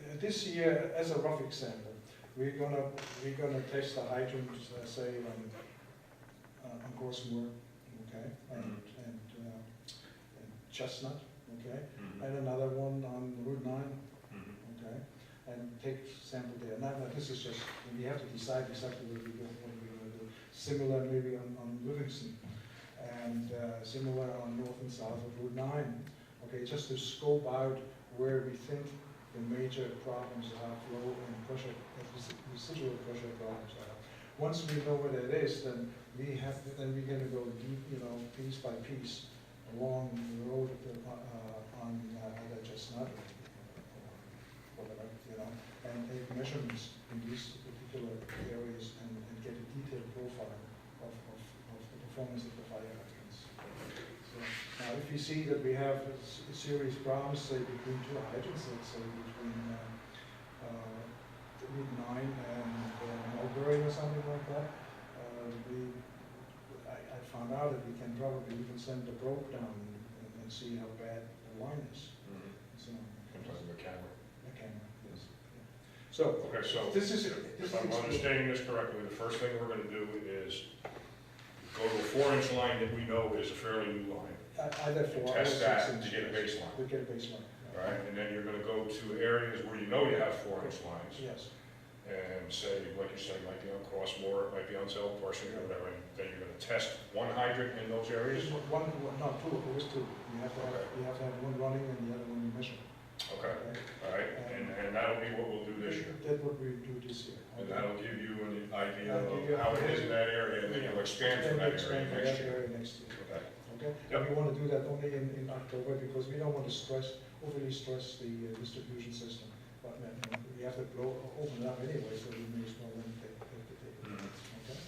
Uh, this year, as a rough example, we're gonna, we're gonna test the hydrants, uh, say, on, uh, on Grossmoor, okay? And, and, uh, and Chestnut, okay? Mm-hmm. And another one on Route nine, okay? And take sample there. Now, now, this is just, we have to decide exactly what we're going, what we're gonna do. Similar maybe on, on Livingston, and, uh, similar on north and south of Route nine. Okay, just to scope out where we think the major problems are, flow and pressure, and resi- residual pressure problems are. Once we know what it is, then we have, then we're gonna go deep, you know, piece by piece along the road of the, uh, on, uh, either Chestnut or whatever, you know, and take measurements in these particular areas and, and get a detailed profile of, of, of the performance of the fire hydrants. So, Now, if you see that we have a s- a serious problems, say between two hydrants, let's say between, uh, uh, Route nine and uh, Mulberry or something like that, uh, we, I, I found out that we can probably even send a probe down and, and see how bad the line is, so. Mm-hmm. A camera, yes. yeah. So, Okay, so This is- this if is I'm explain- understanding this correctly, the first thing we're gonna do is go to a four-inch line that we know is a fairly new line, I- either and four. test or that six to get a inches. baseline, We get a baseline. yeah. right? And then you're gonna go to areas where you know you have four-inch lines Yes, and say, like you say, might be on Crossmore, it might be on South Parsing or whatever, and then you're gonna test one hydrant in those areas? There's one, one- no, two, always two. You have to have, Okay. you have to have one running and the other one you measure. Okay, okay? all right, and, and that'll be what we'll do this year. That's what we do this year. And that'll give you an idea of how it is in that area, and then you'll expand Then from we that area expand to next that year. area next year, Okay. okay? And Yep. we want to do that only in, in October because we don't want to stress, overly stress the uh, distribution system. But then we have to blow, open it up anyway, so we may as well then take, take the data, okay?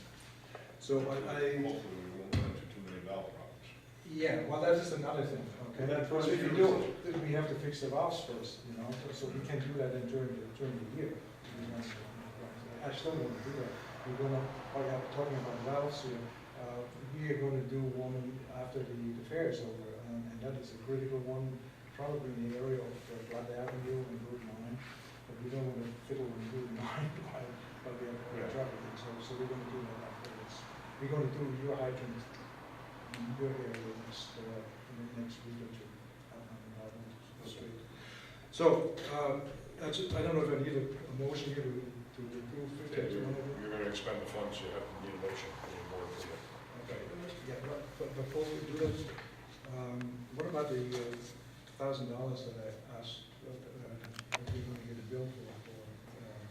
So I, I Hopefully, we won't run into too many valve problems. Yeah, well, that's just another thing, okay? Well, that's Because what if you you do, then we have to fix the valves first, you know, so- so we can do that then during, the during the year. I still want to do that. We're gonna, oh yeah, we're talking about valves here, uh, we are gonna do one after the the fair is over, and and that is a critical one, probably in the area of uh, Blood Avenue and Route nine, but we don't wanna fiddle with Route nine, but, but we have we have Yeah. traffic, and so, so we're gonna do that afterwards. We're gonna do your hydrant in your area next, uh, in the next week or two. um, I don't know, it's great. So, um, that's, I don't know if I need a a motion here to, to approve You're fifty-two hundred. you're gonna expend the funds, you have to need a motion, you need a board approval. Okay, yeah, but, but before we do that, um, what about the thousand dollars that I asked, uh, uh, that we're gonna get a bill for, for, uh,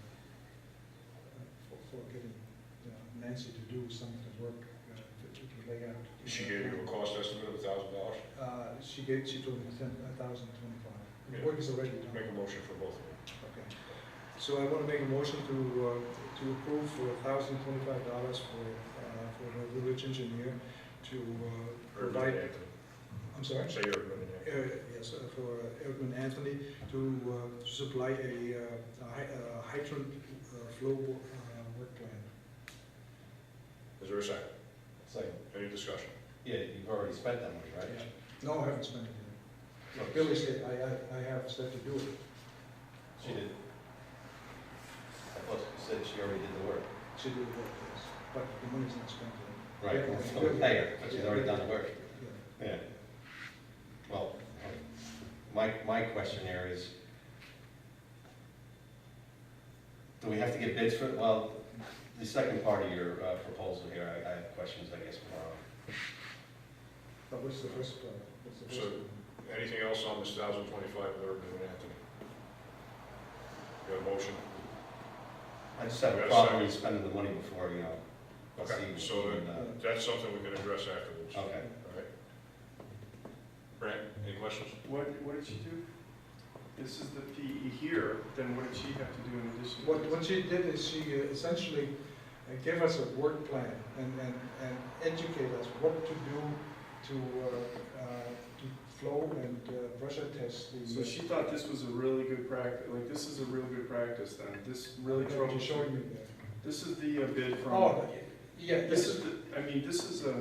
for, for getting uh, Nancy to do some of the work, uh, to, to lay out. She gave you a cost estimate of a thousand dollars? Uh, she gave, she told me ten, a thousand twenty-five. The Yeah. work is already done. Make a motion for both of them. Okay. So I want to make a motion to, uh, to approve for thousand twenty-five dollars for, uh, for the village engineer to uh, Urban provide, and I'm sorry? Anthony. Say Urban and Uh, Yes, uh, for uh, Erdman Anthony to uh, to supply a uh, a hy- a hydrant uh, flow wo- uh, work plan. Anthony. Is there a second? It's like, Any discussion? yeah, you've already spent that money, right? No, I haven't spent it yet. But Billy said, I, I- I have said to do it. She did. I thought you said she already did the work. She did it, yes, but the money's not spent yet. Right, Yeah. well, it's not fair, but she's already done the work. Yeah. Yeah. Well, my, my question there is, do we have to get bids for, it? well, the second part of your uh, proposal here, I, I have questions, I guess, more But what's the first, uh, what's the first? So- Anything else on this thousand twenty-five with Urban and Anthony? You have a motion? on. I just have Yeah, a so- problem with spending the money before, you know. Okay, see- so even, uh, that- that's something we can address afterwards. All Okay. right? Brent, any questions? What, what did she do? This is the PE here, then what did she have to do in addition? What, what she did is she uh, essentially uh, gave us a work plan and, and, and educate us what to do to, uh, uh, to flow and uh, pressure test the. So she thought this was a really good practice, like, this is a really good practice then, this really What trouble. you're showing me This is the uh, there. bid from. Oh, yeah, This is, the- I mean, this is a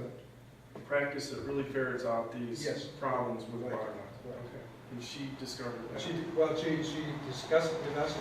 practice that really ferrets out these Yes. problems with Right, water. right. Okay, and she discovered that. She, did- well, she, she discussed it with us and